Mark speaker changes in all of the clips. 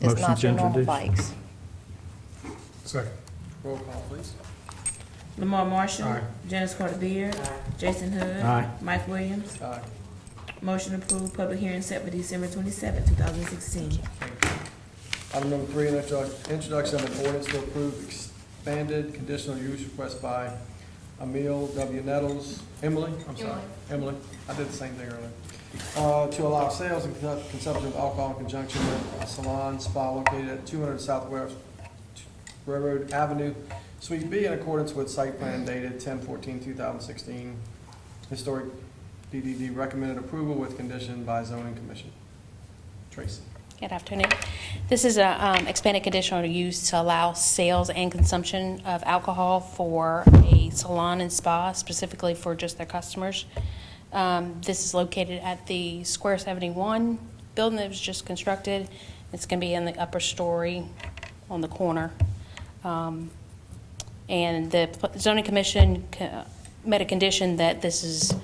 Speaker 1: is
Speaker 2: Motion
Speaker 1: not
Speaker 2: to
Speaker 1: your normal
Speaker 2: introduce.
Speaker 1: bikes.
Speaker 3: Second. Roll call, please.
Speaker 4: Lamar Marshall.
Speaker 3: Aye.
Speaker 4: Janice Carter Beard. Jason Hood.
Speaker 2: Aye.
Speaker 4: Mike Williams.
Speaker 3: Aye.
Speaker 4: Motion approved, public hearing set for December twenty-seventh, two thousand sixteen.
Speaker 3: Item number three, introduc- introduction of an ordinance to approve expanded conditional use request by Emil W. Nettles, Emily, I'm sorry, Emily, I did the same thing earlier, Uh, to allow sales and conduct- consumption of alcohol in conjunction with a salon spa located at 200 Southwest Railroad Avenue, Suite B, in accordance with site plan dated 10/14/2016. Historic DDD recommended approval with condition by zoning commission. Tracy.
Speaker 5: Good afternoon. This is a um, expanded conditional use to allow sales and consumption of alcohol for a salon and spa, specifically for just their customers. Um, This is located at the Square 71 building that was just constructed. It's going to be in the upper story on the corner. Um, And the p- zoning commission co- made a condition that this is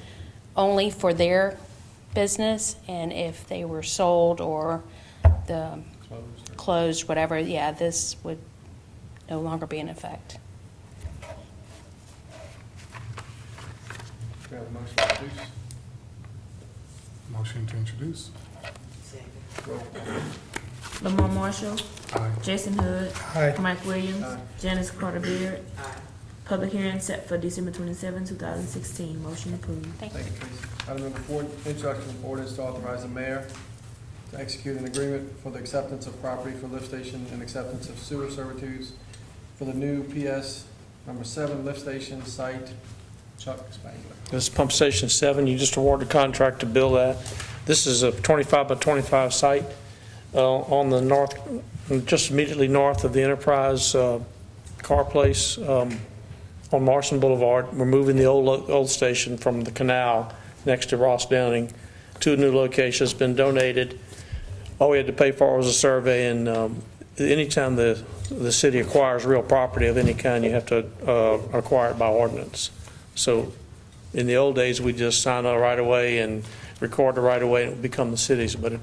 Speaker 5: only for their business, and if they were sold or the
Speaker 3: Closed.
Speaker 5: closed, whatever, yeah, this would no longer be in effect.
Speaker 3: We have a motion to introduce.
Speaker 6: Motion to introduce.
Speaker 4: Lamar Marshall.
Speaker 6: Aye.
Speaker 4: Jason Hood.
Speaker 6: Aye.
Speaker 4: Mike Williams.
Speaker 3: Aye.
Speaker 4: Janice Carter Beard. Public hearing set for December twenty-seventh, two thousand sixteen. Motion approved.
Speaker 5: Thank you.
Speaker 3: Thank you, Tracy. Item number four, introduction of ordinance to authorize the mayor to execute an agreement for the acceptance of property for lift station and acceptance of sewer servitudes for the new PS number seven lift station site, Chuck Spangler.
Speaker 7: This is Pump Station 7, you just awarded a contract to build that. This is a 25 by 25 site uh, on the north, just immediately north of the Enterprise uh, Car Place um, on Marston Boulevard. We're moving the old, lo- old station from the canal next to Ross Downing to a new location. It's been donated. All we had to pay for was a survey, and um, anytime the, the city acquires real property of any kind, you have to uh, acquire it by ordinance. So in the old days, we just sign a right-of-way and record the right-of-way, and it would become the city's, but it-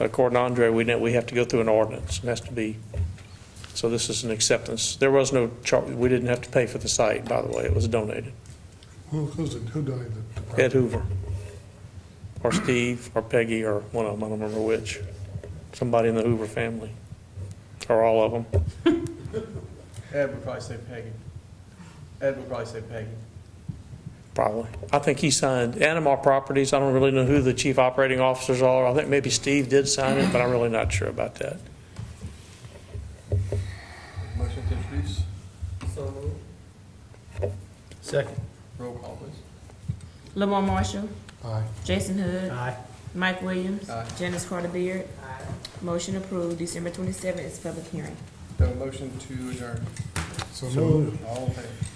Speaker 7: according to Andre, we know we have to go through an ordinance, and has to be, so this is an acceptance. There was no charge, we didn't have to pay for the site, by the way, it was donated.
Speaker 6: Who, who's, it- who donated the property?
Speaker 7: Ed Hoover, or Steve, or Peggy, or one of them, I don't remember which, somebody in the Hoover family, or all of them.
Speaker 3: Ed would probably say Peggy. Ed would probably say Peggy.
Speaker 7: Probably. I think he signed Animal Properties. I don't really know who the chief operating officers are. I think maybe Steve did sign it, but I'm really not sure about that.
Speaker 3: Motion to introduce.
Speaker 2: Second.
Speaker 3: Roll call, please.
Speaker 4: Lamar Marshall.
Speaker 6: Aye.
Speaker 4: Jason Hood.
Speaker 2: Aye.
Speaker 4: Mike Williams.
Speaker 3: Aye.
Speaker 4: Janice Carter Beard. Motion approved, December twenty-seventh is public hearing.
Speaker 3: Do I have a motion to adjourn.
Speaker 6: So moved.
Speaker 3: All in favor?